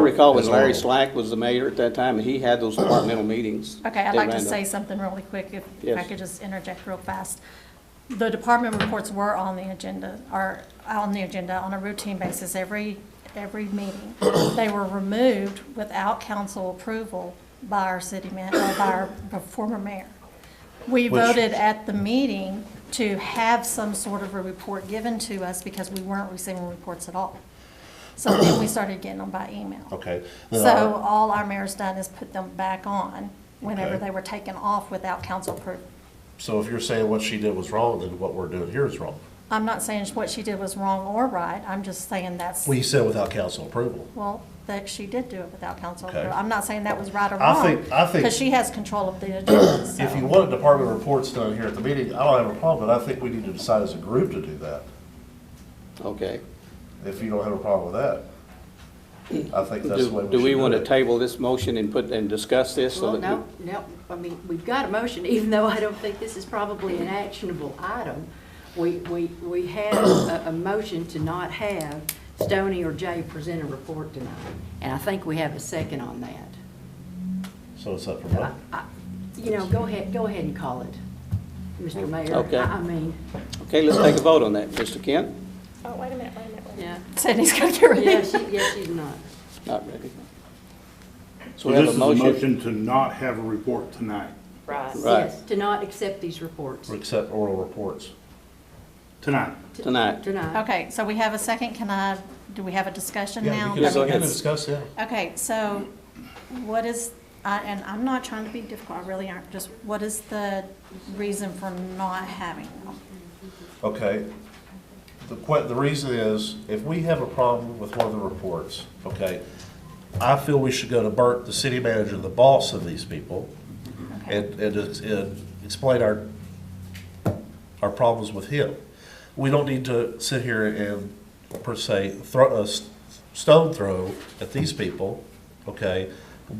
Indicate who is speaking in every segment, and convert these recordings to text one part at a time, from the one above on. Speaker 1: I recall when
Speaker 2: As
Speaker 1: Larry
Speaker 2: long.
Speaker 1: Slack was the mayor at that time, and he had those departmental meetings.
Speaker 3: Okay, I'd
Speaker 1: They
Speaker 3: like to
Speaker 1: ran them.
Speaker 3: say something really quick, if if I
Speaker 1: Yes.
Speaker 3: could just interject real fast. The department reports were on the agenda, are on the agenda on a routine basis every, every meeting. They were removed without council approval by our city man, uh, by our former mayor. We
Speaker 2: Which-
Speaker 3: voted at the meeting to have some sort of a report given to us because we weren't receiving reports at all. So then we started getting them by email.
Speaker 2: Okay. Then
Speaker 3: So
Speaker 2: I-
Speaker 3: all our mayor's done is put them back on whenever
Speaker 2: Okay.
Speaker 3: they were taken off without council approval.
Speaker 2: So if you're saying what she did was wrong, then what we're doing here is wrong.
Speaker 3: I'm not saying what she did was wrong or right, I'm just saying that's,
Speaker 2: Well, you said without council approval.
Speaker 3: well, that she did do it without council
Speaker 2: Okay.
Speaker 3: approval. I'm not saying that was right or
Speaker 2: I
Speaker 3: wrong.
Speaker 2: think- I think-
Speaker 3: Because she has control of the agenda, so.
Speaker 2: If you want department reports done here at the meeting, I don't have a problem, but I think we need to decide as a group to do that,
Speaker 1: Okay.
Speaker 2: if you don't have a problem with that. I think that's the way
Speaker 1: Do
Speaker 2: we should do it.
Speaker 1: do we want to table this motion and put, and discuss this? so
Speaker 4: Well,
Speaker 1: that
Speaker 4: no, no, I mean, we've got a motion, even though I don't think this is probably an actionable item. We, we, we have a, a motion to not have Stoney or Jay present a report tonight, and I think we have a second on that.
Speaker 2: So it's up for
Speaker 4: I-
Speaker 2: vote.
Speaker 4: I- You know, go ahead, go ahead and call it, Mr. Mayor.
Speaker 1: Okay.
Speaker 4: I I mean,
Speaker 1: Okay, let's take a vote on that. Mr. Kent?
Speaker 3: Oh, wait a minute, wait a minute, wait a minute.
Speaker 4: yeah,
Speaker 3: Sydney's gonna get ready.
Speaker 4: yeah, she, yeah, she's not.
Speaker 1: Not ready. So
Speaker 5: So
Speaker 1: we have
Speaker 5: this
Speaker 1: a
Speaker 5: is a
Speaker 1: motion.
Speaker 5: motion to not have a report tonight,
Speaker 6: Right.
Speaker 1: Right.
Speaker 4: Yes, to not accept these reports
Speaker 2: Accept oral reports.
Speaker 5: tonight.
Speaker 1: Tonight.
Speaker 4: tonight.
Speaker 3: Okay, so we have a second, can I, do we have a discussion now?
Speaker 2: Yeah,
Speaker 1: can
Speaker 2: because
Speaker 1: go
Speaker 2: we
Speaker 1: ahead.
Speaker 2: can discuss that.
Speaker 3: Okay, so what is, I- and I'm not trying to be difficult, I really aren't, just what is the reason for not having them?
Speaker 2: Okay. The que, the reason is, if we have a problem with one of the reports, okay, I feel we should go to Bert, the city manager, the boss of these people, and, and, it's- and explain our, our problems with him. We don't need to sit here and, per se, throw, a s- stone throw at these people, okay?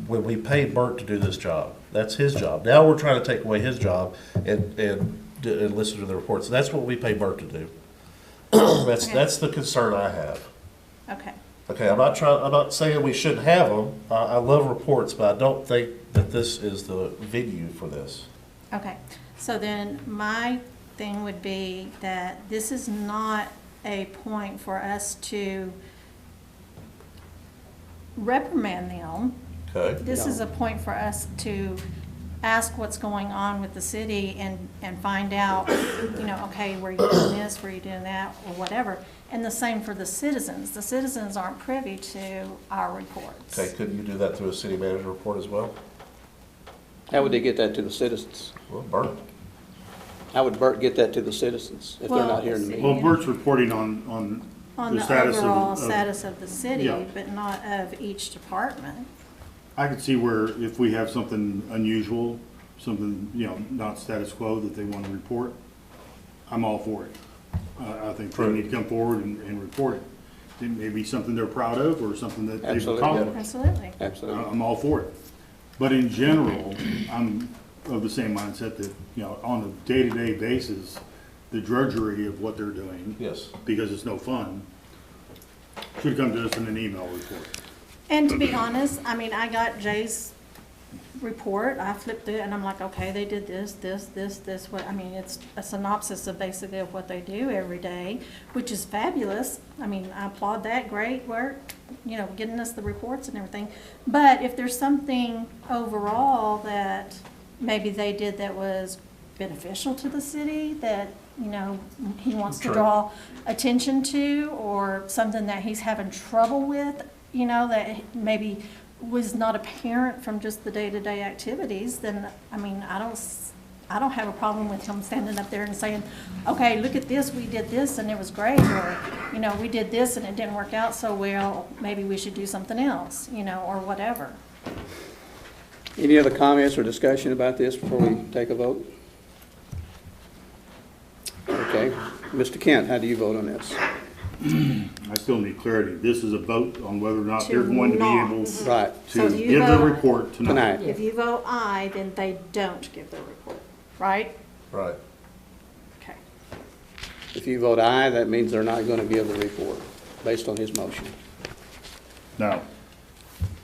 Speaker 2: When we pay Bert to do this job, that's his job. Now we're trying to take away his job and, and, d- and listen to the reports. That's what we pay Bert to do. That's,
Speaker 3: Okay.
Speaker 2: that's the concern I have.
Speaker 3: Okay,
Speaker 2: Okay, I'm not trying, I'm not saying we shouldn't have them. I, I love reports, but I don't think that this is the venue for this.
Speaker 3: okay. So then my thing would be that this is not a point for us to reprimand them.
Speaker 2: Okay?
Speaker 3: This is a point for us to ask what's going on with the city and, and find out, you know, okay, were you doing this, were you doing that, or whatever. And the same for the citizens. The citizens aren't privy to our reports.
Speaker 2: Okay, couldn't you do that through a city manager report as well?
Speaker 1: How would they get that to the citizens?
Speaker 2: Well, Bert,
Speaker 1: How would Bert get that to the citizens if they're
Speaker 3: Well,
Speaker 1: not here in the
Speaker 3: let's see.
Speaker 1: meeting?
Speaker 5: Well, Bert's reporting on, on
Speaker 3: On
Speaker 5: the
Speaker 3: the
Speaker 5: status of.
Speaker 3: overall
Speaker 5: of-
Speaker 3: status of the city,
Speaker 5: Yeah.
Speaker 3: but not of each department.
Speaker 5: I could see where if we have something unusual, something, you know, not status quo that they want to report, I'm all for it. I, I think they need to come forward and, and report it. It may be something they're proud of or something that they've
Speaker 1: Absolutely, yeah.
Speaker 5: accomplished.
Speaker 3: Absolutely.
Speaker 5: I-
Speaker 1: Absolutely.
Speaker 5: I'm all for it. But in general, I'm of the same mindset that, you know, on a day-to-day basis, the drudgery of what they're doing.
Speaker 2: Yes.
Speaker 5: Because it's no fun, should come to us in an email report.
Speaker 3: And to be honest, I mean, I got Jay's report, I flipped it, and I'm like, okay, they did this, this, this, this, what, I mean, it's a synopsis of basically of what they do every day, which is fabulous, I mean, I applaud that, great work, you know, getting us the reports and everything, but if there's something overall that maybe they did that was beneficial to the city, that, you know, he wants to
Speaker 2: True.
Speaker 3: draw attention to or something that he's having trouble with, you know, that maybe was not apparent from just the day-to-day activities, then, I mean, I don't, s- I don't have a problem with him standing up there and saying, okay, look at this, we did this and it was great, or, you know, we did this and it didn't work out so well, maybe we should do something else, you know, or whatever.
Speaker 1: Any other comments or discussion about this before we take a vote? Okay. Mr. Kent, how do you vote on this?
Speaker 5: I still need clarity. This is a vote on whether or not they're going to be
Speaker 3: To
Speaker 5: able
Speaker 3: not. Mm-hmm.
Speaker 1: Right,
Speaker 3: So
Speaker 5: to
Speaker 3: do you
Speaker 5: give the
Speaker 3: vote?
Speaker 5: report tonight.
Speaker 1: tonight.
Speaker 3: If you vote aye, then they don't give their report, right?
Speaker 2: right.
Speaker 3: Okay.
Speaker 1: If you vote aye, that means they're not going to give the report, based on his motion.
Speaker 5: No,